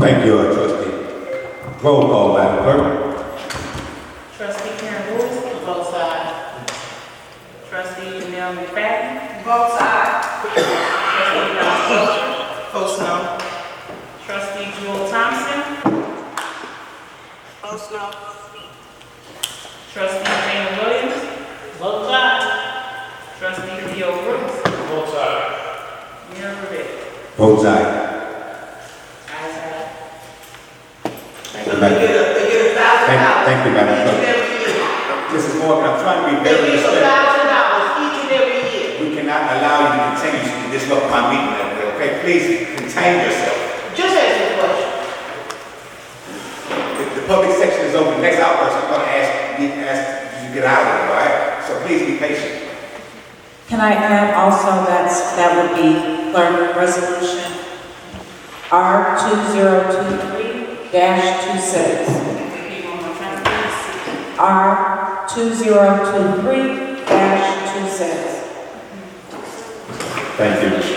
Thank you, uh, trustee. Roll call, Madam Clerk. Trustee Karen Woods, both sides. Trustee Mel McFadden. Both sides. Trustee Don Bolger. Both no. Trustee Jewel Thompson. Both no. Trustee Jane Williams. Both sides. Trustee Theo Brooks. Both sides. Mayor Rivera. Votes aye. Ayes have it. Thank you, Madam. Thank, thank you, Madam Clerk. Mrs. Morgan, I'm trying to be very respectful. We cannot allow you to continue to disrupt my meeting, Madam Clerk, okay? Please contain yourself. The, the public section is open. Next outburst, I'm gonna ask, you ask you to get out of it, all right? So please be patient. Can I add also that's, that would be clerk resolution R two zero two three dash two six. Repeat one more time, please. R two zero two three dash two six. Thank you.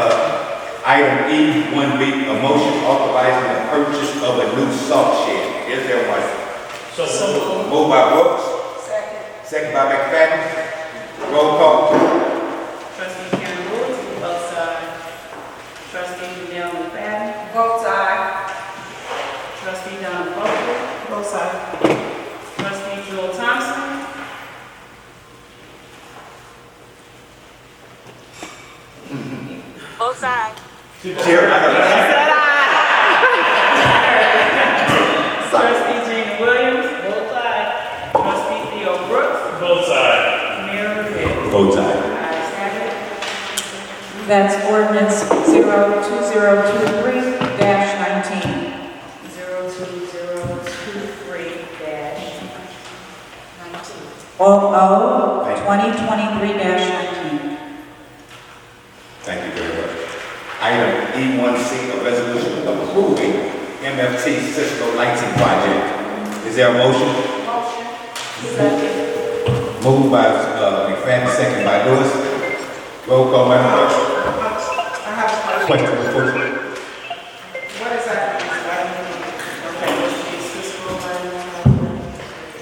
Uh, Item E, one B, a motion authorizing the purchase of a new salt shed. Is there one? So moved. by Brooks. Second. Second by McFadden. Roll call. Trustee Karen Woods, both sides. Trustee Janelle McFadden. Both sides. Trustee Don Bolger. Both sides. Trustee Jewel Thompson. Both sides. Chair, I heard. Trustee Jane Williams. Both sides. Trustee Theo Brooks. Both sides. Mayor Rivera. Votes aye. Ayes have it. That's ordinance zero two zero two three dash nineteen. Zero two zero two three dash nineteen. O O twenty twenty-three dash nineteen. Thank you very much. Item E, one C, a resolution approving MFT Cisco lighting project. Is there a motion? Second. Moved by, uh, McFadden, second by Lewis. Roll call, Madam Clerk. I have a question. Question, question. What exactly is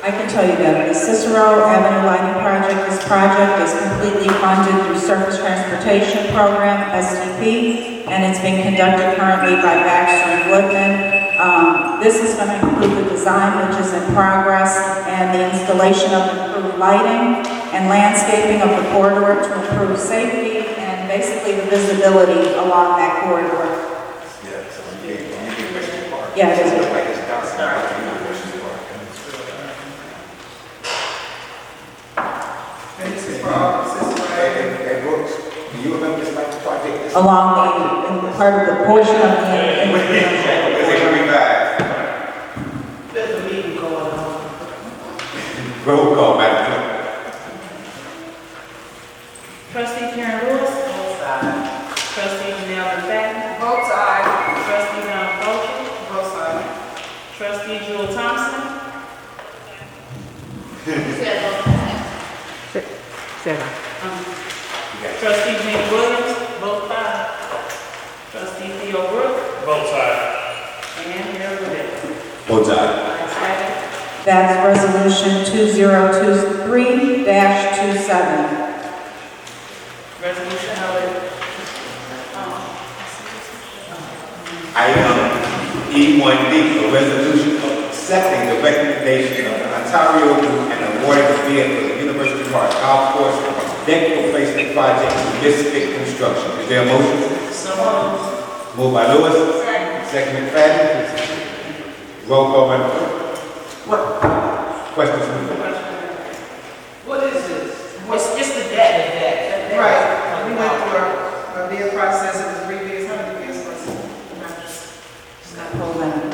I can tell you that the Cicero Avenue Lighting Project, this project is completely funded through Surface Transportation Program, SDP, and it's being conducted currently by Baxter and Woodman. Um, this is going to include the design, which is in progress, and the installation of improved lighting and landscaping of the corridor to improve safety and basically the visibility along that corridor. Yeah, so you get, you get Western Park. Yeah, it is. Look like it's downtown, you get Western Park. And this is Bob, this is Hey, hey, Brooks, do you remember this light project? This- Along the, part of the portion of the. What is it? Is it coming back? There's a meeting going on. Roll call, Madam Trustee Karen Lewis. Both sides. Trustee Janelle McFadden. Both sides. Trustee Don Bolger. Both sides. Trustee Jewel Thompson. Um, Clerk. Trustee Jane Williams. Both sides. Trustee Theo Brooks. Both sides. And Mayor Rivera. Votes aye. Ayes have it. That's resolution 2023-27. Resolution held. Item E1D, a resolution accepting the recommendation of Ontario Group and awarding the bid for the University Park Golf Course Deck Replacement Project to Mystic Construction. Is there a motion? So moved. Moved by Lewis. Second McFadden. Roll call, Madam Clerk. Questions from the board? What is this? It's just the debt of that. Right, we went through our, our bid process, it was three bids, how many bids was it? Just gotta pull that. um,